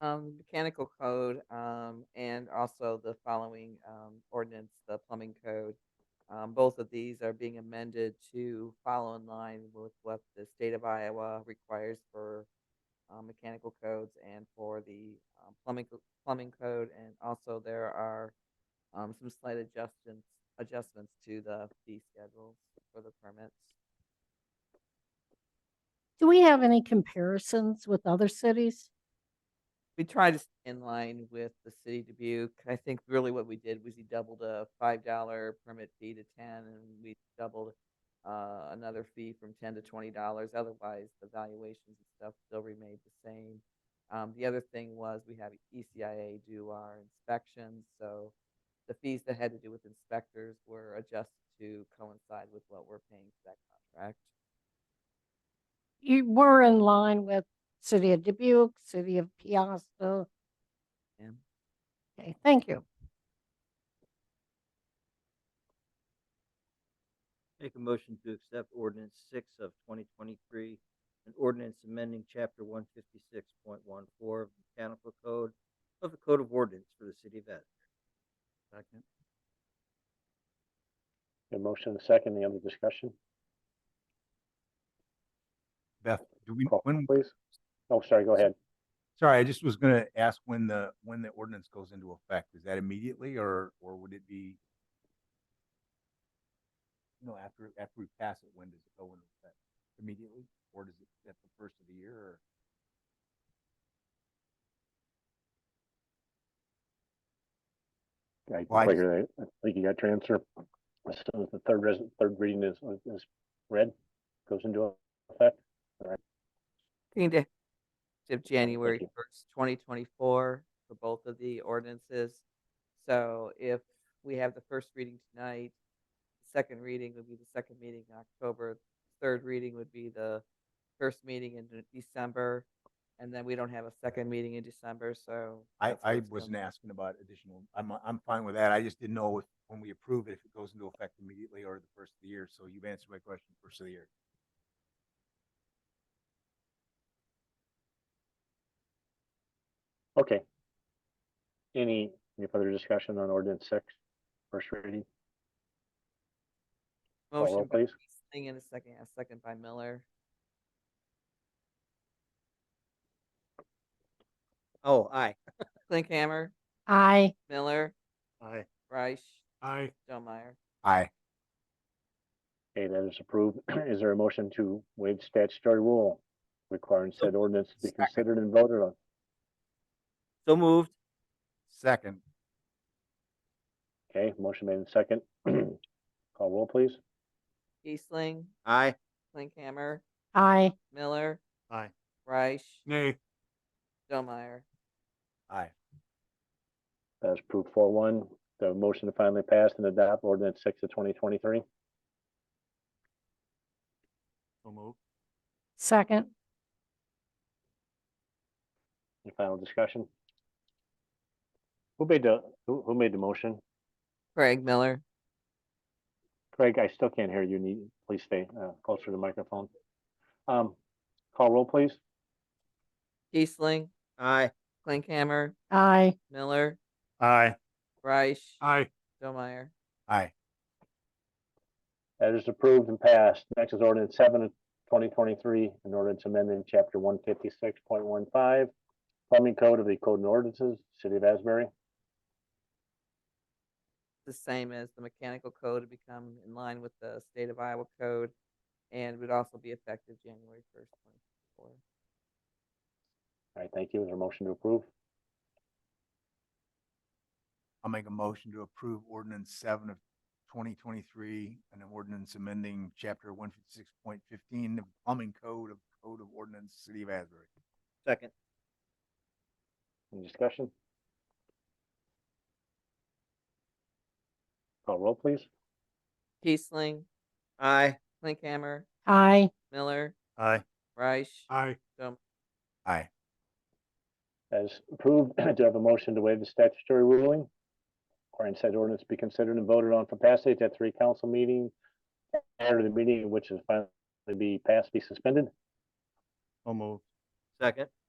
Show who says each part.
Speaker 1: um, mechanical code, um, and also the following, um, ordinance, the plumbing code. Um, both of these are being amended to follow in line with what the state of Iowa requires for, um, mechanical codes and for the um, plumbing, co- plumbing code. And also there are, um, some slight adjustments, adjustments to the fee schedules for the permits.
Speaker 2: Do we have any comparisons with other cities?
Speaker 1: we tried to stay in line with the city of Dubuque. I think really what we did was we doubled a five dollar permit fee to ten and we doubled uh, another fee from ten to twenty dollars. Otherwise, the valuations and stuff still remained the same. Um, the other thing was we E have ECIA do our inspections, so the fees that had to do with inspectors were adjusted to coincide with what we're paying for that contract.
Speaker 2: You were in line with City of Dubuque, City of Piasta.
Speaker 1: Yeah.
Speaker 2: Okay, thank you.
Speaker 3: Make a motion to accept ordinance six of twenty twenty-three, an ordinance amending chapter one fifty-six point one four of the mechanical code of the code of ordinance for the city of Asbury. Second.
Speaker 4: A motion and a second, any other discussion?
Speaker 5: Beth, do we,
Speaker 4: Call,
Speaker 5: when,
Speaker 4: please. Oh, sorry, go ahead.
Speaker 5: sorry, I just was gonna ask when the, when the ordinance goes into effect. Is that immediately or, or would it be? You know, after, after we pass it, when does it go into effect? Immediately? Or does it, at the first of the year or?
Speaker 4: I
Speaker 5: Why?
Speaker 4: figure that, I think you got your answer. As soon as the third res, third reading is, is read, goes into effect.
Speaker 1: Being to of January
Speaker 4: you.
Speaker 1: first, twenty twenty-four for both of the ordinances. So if we have the first reading tonight, second reading would be the second meeting in October, third reading would be the first meeting in De- December, and then we don't have a second meeting in December, so.
Speaker 5: I,
Speaker 1: that's where
Speaker 5: I
Speaker 1: it's
Speaker 5: wasn't
Speaker 1: gonna-
Speaker 5: asking about additional, I'm, I'm fine with that. I just didn't know if, when we approve it, if it goes into effect immediately or the first of the year. So you've answered my question, first of the year.
Speaker 4: Okay. Any, any further discussion on ordinance six, first reading? Call roll,
Speaker 1: Motion by
Speaker 4: please.
Speaker 1: Kiesling and a second, a second by Miller.
Speaker 3: Oh, aye.
Speaker 1: Klinkhammer,
Speaker 2: I,
Speaker 1: Miller,
Speaker 3: Aye.
Speaker 1: Reich,
Speaker 5: Aye.
Speaker 1: Joe Meyer.
Speaker 5: Aye.
Speaker 4: Okay, that is approved. Is there a motion to waive statutory rule requiring said ordinance to be
Speaker 5: Second.
Speaker 4: considered and voted on?
Speaker 3: So moved.
Speaker 5: Second,
Speaker 4: Okay, motion made in second. Call roll, please.
Speaker 1: Kiesling,
Speaker 3: Aye.
Speaker 1: Klinkhammer,
Speaker 2: I,
Speaker 1: Miller.
Speaker 3: Aye.
Speaker 1: Reich.
Speaker 3: Nay.
Speaker 1: Joe Meyer.
Speaker 5: aye.
Speaker 4: That is approved four one. The motion to finally pass and adopt ordinance six of twenty twenty-three.
Speaker 3: So moved.
Speaker 2: second,
Speaker 4: Any final discussion? Who made the, who, who made the motion?
Speaker 1: Craig Miller.
Speaker 4: Craig, I still can't hear you. Need, please stay, uh, closer to the microphone. Um, call roll, please.
Speaker 1: Kiesling,
Speaker 3: Aye.
Speaker 1: Klinkhammer,
Speaker 2: I,
Speaker 1: Miller,
Speaker 3: Aye.
Speaker 1: Reich,
Speaker 3: Aye.
Speaker 1: Joe Meyer.
Speaker 5: Aye.
Speaker 4: That is approved and passed. Next is ordinance seven of twenty twenty-three, an ordinance amending chapter one fifty-six point one five, plumbing code of the code and ordinances, city of Asbury.
Speaker 1: The same as the mechanical code to become in line with the state of Iowa code and would also be effective January first, twenty four.
Speaker 4: All right, thank you. Is there a motion to approve?
Speaker 5: I'll make a motion to approve ordinance seven of twenty twenty-three, an ordinance amending chapter one fifty-six point fifteen, the plumbing code of Code of Ordinance, City of Asbury.
Speaker 3: Second.
Speaker 4: Any discussion? Call roll, please.
Speaker 1: Kiesling,
Speaker 3: Aye.
Speaker 1: Klinkhammer,
Speaker 2: I,
Speaker 1: Miller,
Speaker 3: Aye.
Speaker 1: Reich,
Speaker 3: Aye.
Speaker 5: Aye.
Speaker 4: As approved, do I have a motion to waive the statutory ruling? Requiring said ordinance to be considered and voted on for passage at three council meeting, prior to the meeting in which is finally be passed, be suspended.
Speaker 3: So moved. Second.